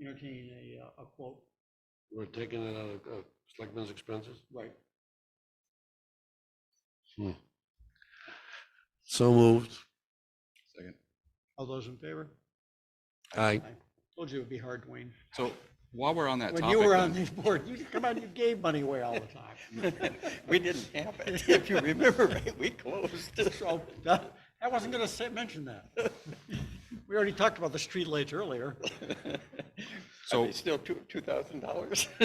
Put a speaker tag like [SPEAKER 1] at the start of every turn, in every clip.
[SPEAKER 1] entertain a, uh, a quote.
[SPEAKER 2] We're taking it out of, of selectmen's expenses?
[SPEAKER 1] Right.
[SPEAKER 2] So moved.
[SPEAKER 3] Second.
[SPEAKER 1] All those in favor?
[SPEAKER 2] Aye.
[SPEAKER 1] Told you it would be hard, Dwayne.
[SPEAKER 3] So while we're on that
[SPEAKER 1] When
[SPEAKER 3] topic,
[SPEAKER 1] you were on
[SPEAKER 3] then,
[SPEAKER 1] this board, you, come on, you gave money away all the time.
[SPEAKER 4] We didn't have it, if you remember right, we closed.
[SPEAKER 1] So, that- I wasn't gonna say, mention that. We already talked about the streetlights earlier.
[SPEAKER 3] so
[SPEAKER 4] Still two, two thousand dollars?
[SPEAKER 1] Hmm.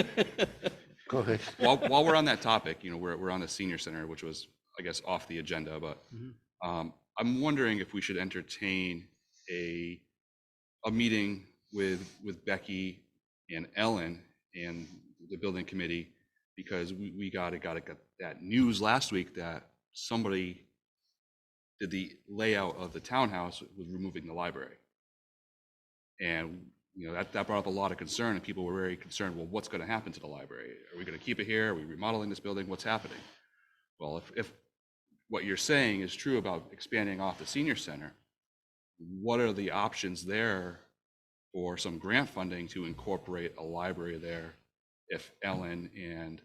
[SPEAKER 2] Go ahead.
[SPEAKER 3] while, while we're on that topic, you know, we're, we're on the senior center, which was, I guess, off the agenda, but
[SPEAKER 1] Mhm.
[SPEAKER 3] um, I'm wondering if we should entertain a, a meeting with, with Becky and Ellen and the building committee, because we, we gotta, gotta get that news last week that somebody did the layout of the townhouse with removing the library. And, you know, that, that brought up a lot of concern, and people were very concerned, well, what's gonna happen to the library? Are we gonna keep it here? Are we remodeling this building? What's happening? Well, if, if what you're saying is true about expanding off the senior center, what are the options there for some grant funding to incorporate a library there if Ellen and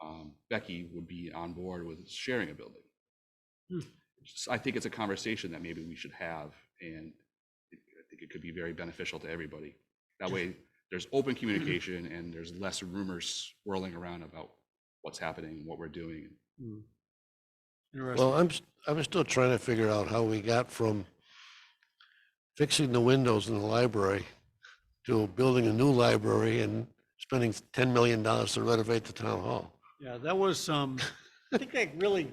[SPEAKER 3] um, Becky would be on board with sharing a building?
[SPEAKER 1] Hmm.
[SPEAKER 3] Just- I think it's a conversation that maybe we should have, and it- I think it could be very beneficial to everybody. That way, there's open
[SPEAKER 1] Mm-hmm.
[SPEAKER 3] communication and there's less rumors swirling around about what's happening, what we're doing.
[SPEAKER 1] Hmm. Interesting.
[SPEAKER 2] Well, I'm, s- I'm still trying to figure out how we got from fixing the windows in the library to building a new library and spending ten million dollars to renovate the town hall.
[SPEAKER 1] Yeah, that was, um, I think that really,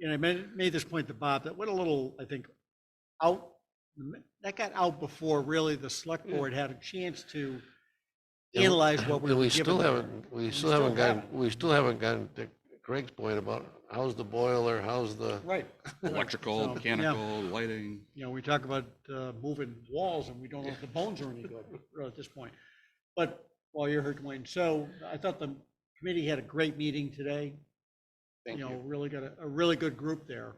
[SPEAKER 1] and I made, made this point to Bob, that went a little, I think, out, that got out before really the select board had a chance to
[SPEAKER 2] Hmm. Yeah, we-
[SPEAKER 1] analyze what we
[SPEAKER 2] And
[SPEAKER 1] were
[SPEAKER 2] we
[SPEAKER 1] given
[SPEAKER 2] still
[SPEAKER 1] there.
[SPEAKER 2] haven't, we still
[SPEAKER 1] still
[SPEAKER 2] haven't gotten,
[SPEAKER 1] haven't.
[SPEAKER 2] we still haven't gotten to Craig's point about how's the boiler, how's the,
[SPEAKER 1] Right. So,
[SPEAKER 3] Electrical,
[SPEAKER 1] yeah.
[SPEAKER 3] mechanical, lighting.
[SPEAKER 1] you know, we talk about uh, moving walls and we don't know if the bones are any good uh, at this point. But while you're here, Dwayne, so I thought the committee had a great meeting today.
[SPEAKER 4] Thank
[SPEAKER 1] You know,
[SPEAKER 4] you.
[SPEAKER 1] really got a, a really good group there.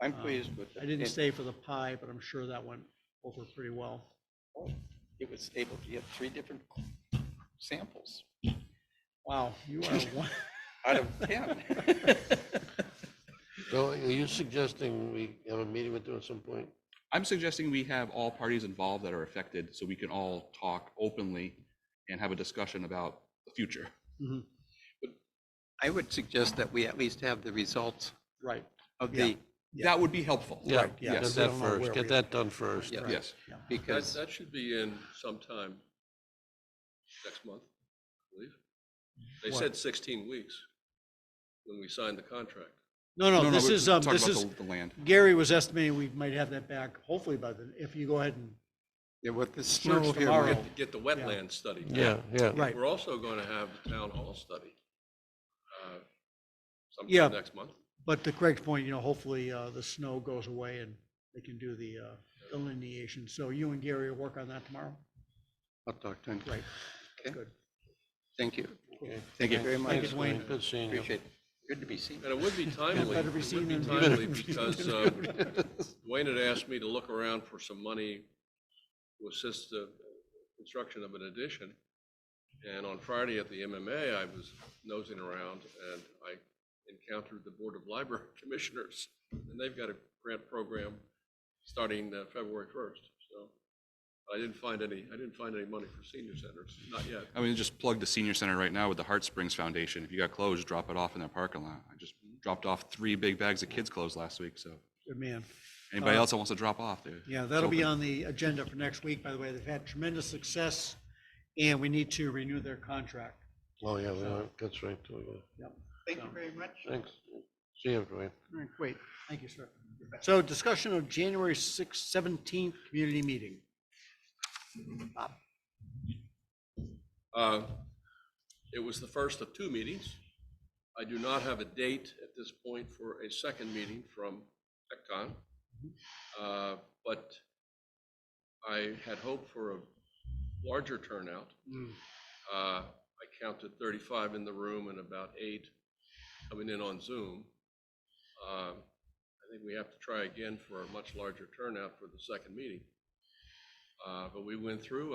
[SPEAKER 4] I'm
[SPEAKER 1] Um,
[SPEAKER 4] pleased with.
[SPEAKER 1] I didn't
[SPEAKER 4] it.
[SPEAKER 1] stay for the pie, but I'm sure that went over pretty well.
[SPEAKER 4] Oh, It was able to get three different samples
[SPEAKER 1] Wow, you are one,
[SPEAKER 4] out of ten.
[SPEAKER 2] so are you suggesting we have a meeting with them at some point?
[SPEAKER 3] I'm suggesting we have all parties involved that are affected so we can all talk openly and have a discussion about the future.
[SPEAKER 4] I would suggest that we at least have the results
[SPEAKER 1] right.
[SPEAKER 4] of
[SPEAKER 1] Yeah.
[SPEAKER 4] the,
[SPEAKER 3] That would be helpful.
[SPEAKER 2] Yeah,
[SPEAKER 1] yeah,
[SPEAKER 2] get
[SPEAKER 3] Yes,
[SPEAKER 1] we don't
[SPEAKER 2] that
[SPEAKER 1] know where
[SPEAKER 2] first,
[SPEAKER 1] we
[SPEAKER 2] get that done first.
[SPEAKER 4] Yeah.
[SPEAKER 3] yes.
[SPEAKER 5] That,
[SPEAKER 4] because
[SPEAKER 5] that should be in sometime next month, I believe. They
[SPEAKER 1] What?
[SPEAKER 5] said sixteen weeks when we signed the contract.
[SPEAKER 1] No, no, this
[SPEAKER 3] we're
[SPEAKER 1] is, um,
[SPEAKER 3] talking
[SPEAKER 1] this
[SPEAKER 3] about
[SPEAKER 1] is,
[SPEAKER 3] the- The land.
[SPEAKER 1] Gary was estimating we might have that back hopefully by then, if you go ahead and,
[SPEAKER 4] yeah, with the snow here.
[SPEAKER 1] tomorrow.
[SPEAKER 4] we're-
[SPEAKER 5] Get the wetland study.
[SPEAKER 2] Yeah, yeah.
[SPEAKER 1] right.
[SPEAKER 5] We're also gonna have the town hall study. uh,
[SPEAKER 1] Yeah.
[SPEAKER 5] Sometime next month.
[SPEAKER 1] But to Craig's point, you know, hopefully uh, the snow goes away and they can do the uh, delineation. So you and Gary will work on that tomorrow?
[SPEAKER 4] I'll talk to him.
[SPEAKER 1] Great.
[SPEAKER 4] Okay.
[SPEAKER 1] Good.
[SPEAKER 4] Thank you.
[SPEAKER 2] Okay.
[SPEAKER 4] Thank you very much.
[SPEAKER 1] Thank you, Dwayne.
[SPEAKER 2] Good seeing you.
[SPEAKER 4] Appreciate it. Good to be seen.
[SPEAKER 5] And it would be timely.
[SPEAKER 1] better be
[SPEAKER 5] it
[SPEAKER 1] seen
[SPEAKER 5] would be
[SPEAKER 1] than-
[SPEAKER 5] timely because uh, Dwayne had asked me to look around for some money to assist the construction of an addition. And on Friday at the MMA, I was nosing around and I encountered the Board of Library Commissioners. And they've got a grant program starting uh, February 1st, so. I didn't find any, I didn't find any money for senior centers, not yet.
[SPEAKER 3] I mean, just plug the senior center right now with the Heart Springs Foundation. If you got clothes, drop it off in their parking lot. I just
[SPEAKER 1] Mm-hmm.
[SPEAKER 3] dropped off three big bags of kids' clothes last week, so
[SPEAKER 1] Good man.
[SPEAKER 3] anybody
[SPEAKER 1] Uh,
[SPEAKER 3] else that wants to drop off there.
[SPEAKER 1] Yeah, that'll be on the agenda for next week, by the way. They've had tremendous success and we need to renew their contract.
[SPEAKER 2] Oh, yeah, we are. that's right, too, yeah.
[SPEAKER 4] Thank you very much.
[SPEAKER 2] Thanks. See you, Dwayne.
[SPEAKER 1] All right, great. Thank you, sir. So discussion of January 6th, 17th, community meeting.
[SPEAKER 5] Uh, It was the first of two meetings. I do not have a date at this point for a second meeting from TechCon. Uh, But I had hoped for a larger turnout. Uh, I counted 35 in the room and about eight coming in on Zoom. Uh, I think we have to try again for a much larger turnout for the second meeting. Uh, But we went through,